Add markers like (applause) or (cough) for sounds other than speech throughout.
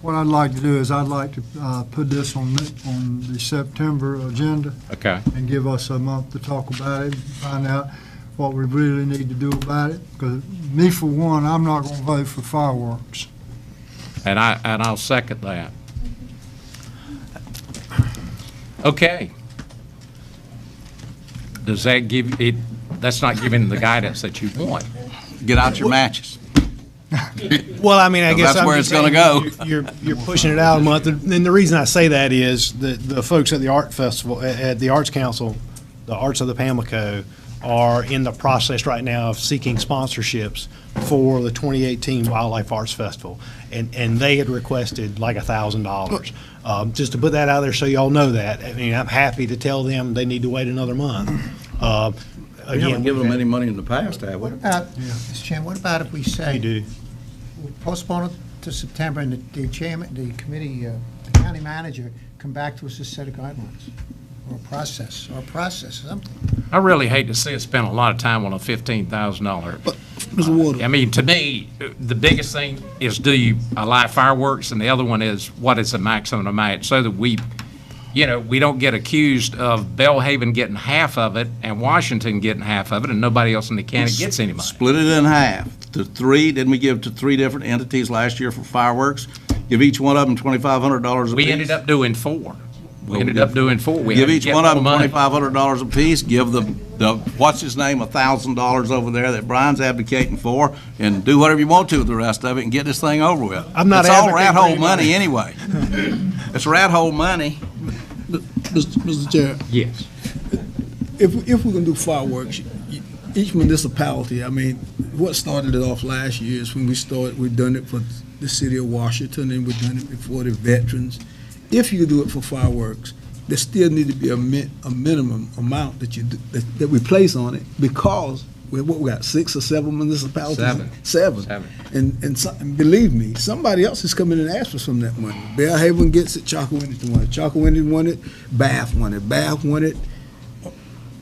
What I'd like to do is I'd like to uh, put this on, the- on the September agenda Okay, and give us a month to talk about it, and find out what we really need to do about it. Because me, for one, I'm not going to vote for fireworks. and I, and I'll second that. Okay. Does that give, it, that's not giving the guidance that you want. Get out your matches. Well, I mean, I Well, guess that's I'm where just it's gonna saying go. You're, you're you're pushing it out a month, and the reason I say that is that the folks at the art festival, at- at the Arts Council, the Arts of the Pamlico, are in the process right now of seeking sponsorships for the 2018 Wildlife Arts Festival, and and they had requested like a thousand dollars. Um, just to put that out there, so y'all know that. I mean, I'm happy to tell them they need to wait another month. Uh, We haven't again, given them any money in the past, have we? What about, Mr. Chairman, what about if we say? They do. we Postpone it to September, and the- the chairman, the committee, uh, the county manager, come back to us with a set of guidelines, or a process, or a process, something. I really hate to see us spend a lot of time on a fifteen thousand dollar. Mr. Ward, I mean, to me, the biggest thing is do you allow fireworks, and the other one is what is the maximum amount, so that we, you know, we don't get accused of Bellhaven getting half of it and Washington getting half of it, and nobody else in the county gets any money. Split it in half to three, didn't we give to three different entities last year for fireworks? Give each one of them twenty-five hundred dollars apiece. We ended up doing four. We Well, ended we up did- doing four. We Give had to each get one of them more money. twenty-five hundred dollars apiece, give the, the, what's his name, a thousand dollars over there that Brian's advocating for, and do whatever you want to with the rest of it and get this thing over with. I'm not It's all advocating rat for hole any money money. anyway. (laughs) It's rat hole money. Mr. Mr. Chair, Yes. if, if we're gonna do fireworks, y- each municipality, I mean, what started it off last year is when we started, we've done it for the city of Washington, and we've done it before the veterans. If you do it for fireworks, there still need to be a min, a minimum amount that you, do- that, that we place on it, because we, what, we got six or seven municipalities? Seven. Seven. Seven. And, and some- and believe me, somebody else is coming and asking for some of that money. Bellhaven gets it, Chalkawinity won it, Chalkawinity won it, Bath won it, Bath won it,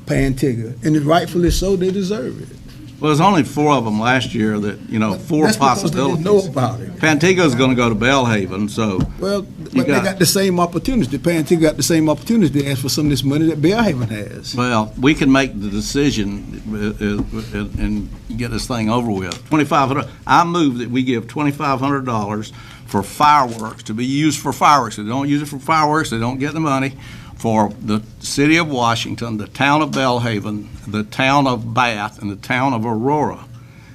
Pantigga, and rightfully so, they deserve it. Well, there's only four of them last year that, you know, four That's because they didn't possibilities. know about it. Pantigo's gonna go to Bellhaven, so Well, You but they got- got the same opportunity, Pantigga got the same opportunity to ask for some of this money that Bellhaven has. Well, we can make the decision uh, uh, uh, and get this thing over with. Twenty-five hundred, I move that we give twenty-five hundred dollars for fireworks, to be used for fireworks. If they don't use it for fireworks, they don't get the money, for the city of Washington, the town of Bellhaven, the town of Bath, and the town of Aurora.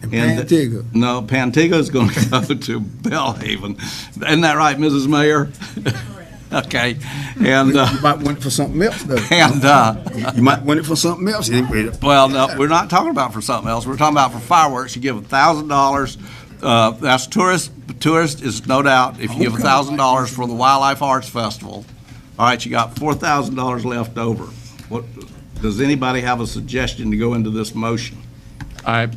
And And the- Pantigga, No, Pantigo's going to (laughs) go to Bellhaven. Isn't that right, Mrs. Mayor? (laughs) Okay, and, uh, you might want it for something else though. and, uh, (laughs) You might want it for something else. Anyway, Well, no, we're not talking about for something else. We're talking about for fireworks. You give a thousand dollars. uh, That's tourist. Tourist is no doubt. If you give a thousand dollars for the Wildlife Arts Festival, all right, you got four thousand dollars left over. What does anybody have a suggestion to go into this motion? I,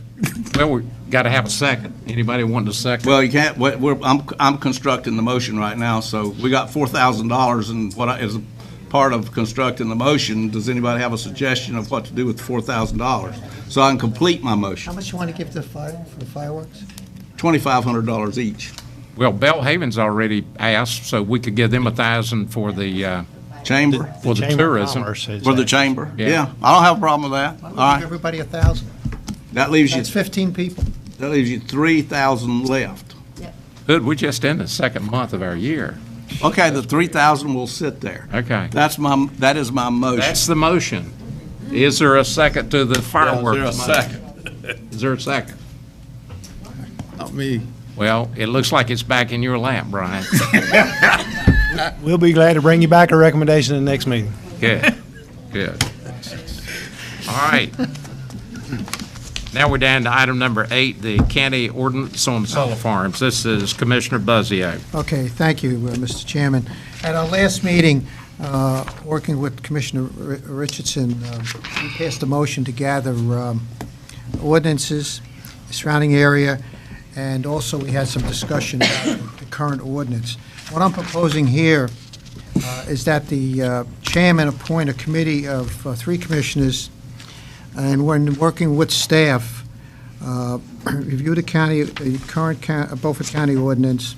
well, we got to have a second. Anybody wanting a second? Well, you can't. we- We're, I'm, I'm constructing the motion right now. So we got four thousand dollars, and what I- is a part of constructing the motion? Does anybody have a suggestion of what to do with four thousand dollars? So I can complete my motion. How much you want to give to the fire, for the fireworks? $2,500 each. Well, Bellhaven's already asked, so we could give them a thousand for the, uh, Chamber, for the Chamber of tourism. Commerce has for the asked. chamber. Yeah. Yeah, I don't have a problem with that. Why All don't we give right, everybody a thousand? that leaves you, That's fifteen people. that leaves you 3,000 left. Hood, we're just in the second month of our year. Okay, the 3,000 will sit there. Okay. That's my, that is my motion. That's the motion. Is there a second to the fireworks? there a motion? Is there a second? not me. Well, it looks like it's back in your lap, (laughs) Brian. We'll be glad to bring you back a recommendation in the next meeting. Good, good. All right. Now we're down to item number eight, the county ordinance on solar farms. This is Commissioner Buzzio. Okay, thank you, uh, Mr. Chairman. At our last meeting, uh, working with Commissioner Ri- Richardson, um, we passed a motion to gather um, ordinances surrounding area, and also we had some discussion about the current ordinance. What I'm proposing here uh, is that the uh, chairman appoint a committee of uh, three commissioners, and when working with (clears throat) staff, uh, review the county, the current coun- Beaufort County ordinance,